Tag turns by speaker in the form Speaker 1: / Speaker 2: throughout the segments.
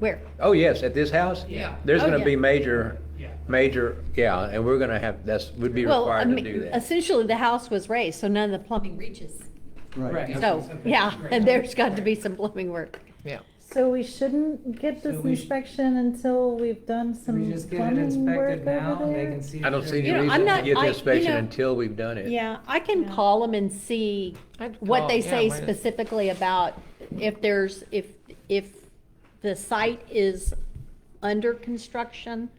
Speaker 1: Where?
Speaker 2: Oh, yes, at this house?
Speaker 3: Yeah.
Speaker 2: There's
Speaker 1: Oh,
Speaker 2: gonna
Speaker 1: yeah.
Speaker 2: be major,
Speaker 3: Yeah.
Speaker 2: major, yeah, and we're gonna have, that's, we'd be
Speaker 1: Well, I
Speaker 2: required to
Speaker 1: mean,
Speaker 2: do that.
Speaker 1: essentially, the house was raised, so none of the plumbing reaches.
Speaker 3: Right.
Speaker 1: So, yeah, and there's got to be some plumbing work.
Speaker 4: Yeah.
Speaker 5: So we shouldn't get this
Speaker 3: So we sh-
Speaker 5: inspection until we've done some
Speaker 3: We just get it
Speaker 5: plumbing work
Speaker 3: inspected now
Speaker 5: over
Speaker 3: and they
Speaker 5: there?
Speaker 3: can see.
Speaker 2: I
Speaker 3: if
Speaker 2: don't see
Speaker 3: there's-
Speaker 2: any
Speaker 1: You know, I'm
Speaker 2: reason to
Speaker 1: not-
Speaker 2: get
Speaker 1: I-
Speaker 2: the
Speaker 1: you
Speaker 2: inspection
Speaker 1: know-
Speaker 2: until we've done it.
Speaker 1: Yeah, I can
Speaker 5: Yeah.
Speaker 1: call them and see
Speaker 4: I'd
Speaker 1: what
Speaker 4: call-
Speaker 1: they
Speaker 4: Oh, yeah,
Speaker 1: say
Speaker 4: why not?
Speaker 1: specifically about if there's, if, if the site is under construction,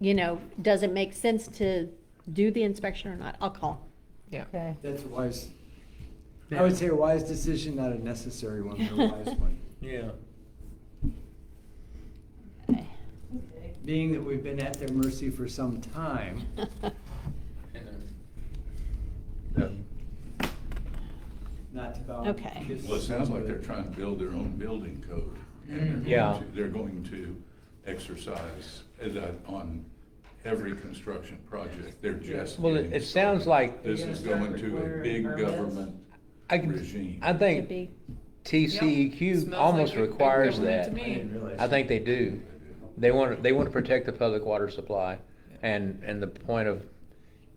Speaker 1: you know, does it make sense to do the inspection or not? I'll call.
Speaker 4: Yeah.
Speaker 5: Okay.
Speaker 6: That's a wise, I would say a wise decision, not a necessary one, but a wise one.
Speaker 2: Yeah.
Speaker 6: Being that we've been at their mercy for some time. Not to bow.
Speaker 1: Okay.
Speaker 7: Well, it sounds like they're trying to build their own building code. and they're
Speaker 2: Mm. Yeah.
Speaker 7: going to- They're going to exercise eh, that on every construction project. They're just.
Speaker 2: Well, it-
Speaker 7: getting
Speaker 2: it sounds
Speaker 7: started.
Speaker 2: like-
Speaker 7: This is going to a big government
Speaker 2: I can,
Speaker 7: regime.
Speaker 2: I
Speaker 1: Could
Speaker 2: think
Speaker 1: be.
Speaker 2: TCEQ
Speaker 4: Smells
Speaker 2: almost
Speaker 4: like a big
Speaker 2: requires
Speaker 4: government
Speaker 2: that.
Speaker 4: to me.
Speaker 2: I think they do. They want, they want to protect the public water supply. And, and the point of,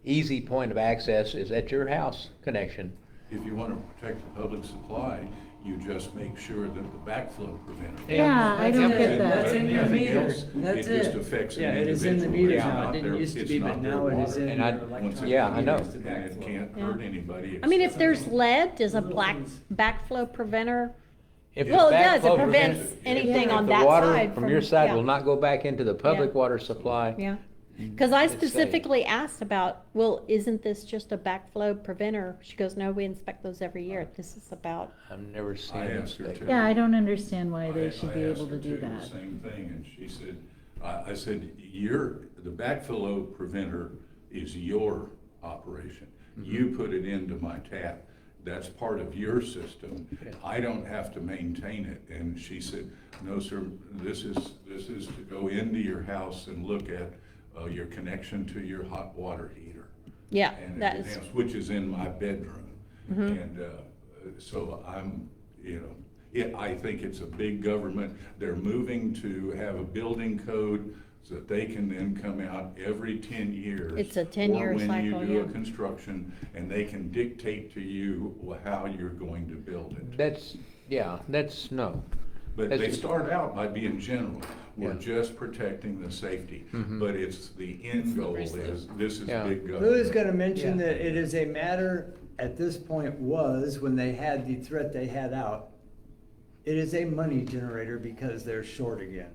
Speaker 2: easy point of access is at your house connection.
Speaker 7: If you want to protect the public supply, you just make sure that the backflow preventer.
Speaker 5: Yeah, I don't
Speaker 7: That's
Speaker 5: get
Speaker 7: in-
Speaker 5: that.
Speaker 6: That's in your
Speaker 7: everything
Speaker 6: meter.
Speaker 7: else,
Speaker 6: That's
Speaker 7: It just
Speaker 6: it.
Speaker 7: affects an
Speaker 6: Yeah, it
Speaker 7: individual.
Speaker 6: is in the
Speaker 7: It's
Speaker 6: meter now.
Speaker 7: not
Speaker 6: It didn't
Speaker 7: their-
Speaker 6: used to
Speaker 7: it's
Speaker 6: be,
Speaker 7: not
Speaker 6: but
Speaker 7: their
Speaker 6: now it is
Speaker 7: water.
Speaker 6: in
Speaker 2: And I-
Speaker 6: your electronic
Speaker 7: Once it-
Speaker 2: Yeah, I know.
Speaker 6: meters to
Speaker 7: And it
Speaker 6: backflow.
Speaker 7: can't
Speaker 1: Yeah.
Speaker 7: hurt anybody.
Speaker 1: I mean, if
Speaker 7: except-
Speaker 1: there's lead, does a black, backflow preventer?
Speaker 2: If
Speaker 1: Well, it
Speaker 2: the
Speaker 1: does, it
Speaker 2: backflow
Speaker 1: prevents anything
Speaker 2: if
Speaker 1: on
Speaker 2: the
Speaker 1: that
Speaker 2: water
Speaker 1: side.
Speaker 2: From your side
Speaker 1: yeah.
Speaker 2: will not go back into the public water supply.
Speaker 1: Yeah, because I
Speaker 2: Mm, It's safe.
Speaker 1: specifically asked about, well, isn't this just a backflow preventer? She goes, no, we inspect those every year. This is about,
Speaker 2: I've never seen
Speaker 7: I
Speaker 2: it.
Speaker 7: asked her
Speaker 2: inspected.
Speaker 7: to.
Speaker 5: Yeah, I don't understand why
Speaker 7: I-
Speaker 5: they should
Speaker 7: I
Speaker 5: be
Speaker 7: asked
Speaker 5: able
Speaker 7: her
Speaker 5: to do
Speaker 7: too, the
Speaker 5: that.
Speaker 7: Same thing, and she said, I, I said, your, the backflow preventer is your operation. You put it into my tap, that's part of your system, I don't have to maintain it. And she said, no, sir, this is, this is to go into your house and look at, uh, your connection to your hot water heater
Speaker 1: yeah,
Speaker 7: and
Speaker 1: that
Speaker 7: everything
Speaker 1: is, Mm-hmm.
Speaker 7: else, which is in my bedroom. And uh, so I'm, you know, it, I think it's a big government. They're moving to have a building code so that they can then come out every ten years.
Speaker 1: It's a 10-year
Speaker 7: Or
Speaker 1: cycle,
Speaker 7: when you do
Speaker 1: yeah.
Speaker 7: a construction, and they can dictate to you wh- how you're going to build it.
Speaker 2: That's, yeah, that's, no.
Speaker 7: But
Speaker 2: That's
Speaker 7: they
Speaker 2: just-
Speaker 7: start out by being general. We're
Speaker 2: Yeah. Mm-hmm.
Speaker 7: just protecting the safety, but it's the end goal
Speaker 4: Slippery slope.
Speaker 7: is, this is
Speaker 2: Yeah.
Speaker 7: big government.
Speaker 6: Lily's gonna mention
Speaker 3: Yeah.
Speaker 6: that it is a matter, at this point was, when they had the threat they had out, it is a money generator because they're short again.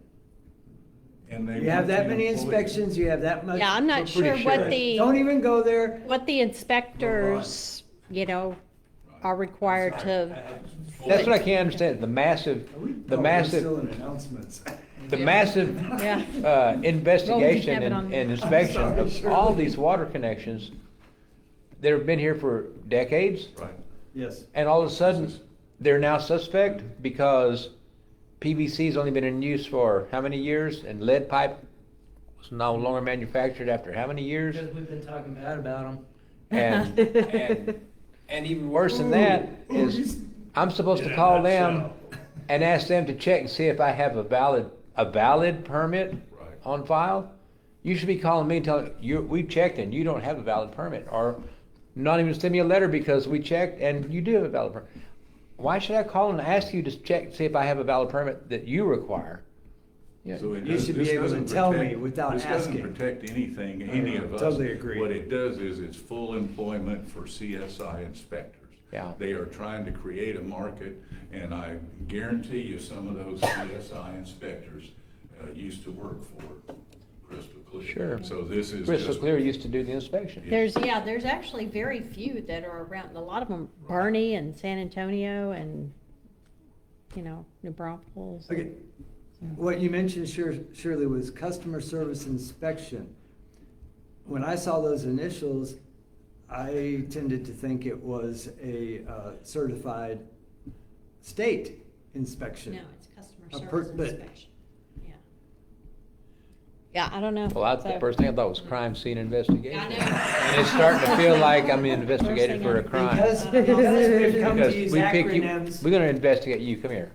Speaker 7: And they
Speaker 6: You have
Speaker 7: want the
Speaker 6: that many
Speaker 7: employees-
Speaker 6: inspections, you have that much.
Speaker 1: yeah, I'm not
Speaker 2: We're
Speaker 1: sure
Speaker 2: pretty
Speaker 1: what
Speaker 2: sure.
Speaker 6: Don't
Speaker 1: the,
Speaker 6: even go there.
Speaker 1: what the inspectors, you know, are required to,
Speaker 2: That's what I can't understand, the massive,
Speaker 6: Are we-
Speaker 2: the
Speaker 6: oh, we're
Speaker 2: massive,
Speaker 6: Still in announcements.
Speaker 2: the massive
Speaker 1: yeah.
Speaker 2: uh, investigation
Speaker 1: have it on
Speaker 2: and
Speaker 1: there.
Speaker 2: and inspection
Speaker 6: I'm sorry,
Speaker 2: of
Speaker 6: Shirley.
Speaker 2: all these water connections that have been here for decades,
Speaker 7: Right.
Speaker 6: Yes.
Speaker 2: and all of a sudden, they're now suspect because PVC's only been in use for how many years, and lead pipe was no longer manufactured after how many years?
Speaker 3: Because we've been talking bad about them.
Speaker 2: And, and, and even worse than that is, I'm supposed to call them
Speaker 7: uh,
Speaker 2: and ask them to check and see if I have a valid, a valid permit
Speaker 7: Right.
Speaker 2: on file. You should be calling me and telling, you, we checked and you don't have a valid permit, or not even send me a letter because we checked and you do have a valid permit. Why should I call and ask you to check, see if I have a valid permit that you require? Yeah.
Speaker 7: So it
Speaker 6: You
Speaker 7: does-
Speaker 6: should be
Speaker 7: this
Speaker 6: able to
Speaker 7: doesn't
Speaker 6: tell me
Speaker 7: protect-
Speaker 6: without asking.
Speaker 7: This doesn't protect anything, any of us.
Speaker 6: totally agree.
Speaker 7: What it does is it's full employment for CSI inspectors.
Speaker 2: Yeah.
Speaker 7: They are trying to create a market, and I guarantee you, some of those CSI inspectors uh, used to work for Crystal Clear.
Speaker 2: Sure.
Speaker 7: So this is just.
Speaker 2: Crystal Clear used to do the inspection.
Speaker 1: There's, yeah, there's actually very few that are around, a lot of them, Bernie and San Antonio and, you know, New Braunfels.
Speaker 6: Okay, what you mentioned Shir- Shirley was customer service inspection. When I saw those initials, I tended to think it was a uh, certified state
Speaker 1: No,
Speaker 6: inspection.
Speaker 1: it's
Speaker 6: A
Speaker 1: customer
Speaker 6: per-
Speaker 1: service
Speaker 6: but-
Speaker 1: inspection, yeah. Yeah, I don't know.
Speaker 2: Well, that's the
Speaker 1: So-
Speaker 2: first thing I thought was crime scene investigation.
Speaker 1: I know.
Speaker 2: And it's starting to feel like I'm being
Speaker 1: First thing
Speaker 2: investigated for
Speaker 1: I-
Speaker 2: a crime.
Speaker 6: Because, because we've come to
Speaker 2: Because
Speaker 6: use
Speaker 2: we pick you,
Speaker 6: acronyms.
Speaker 2: we're gonna investigate you, come here.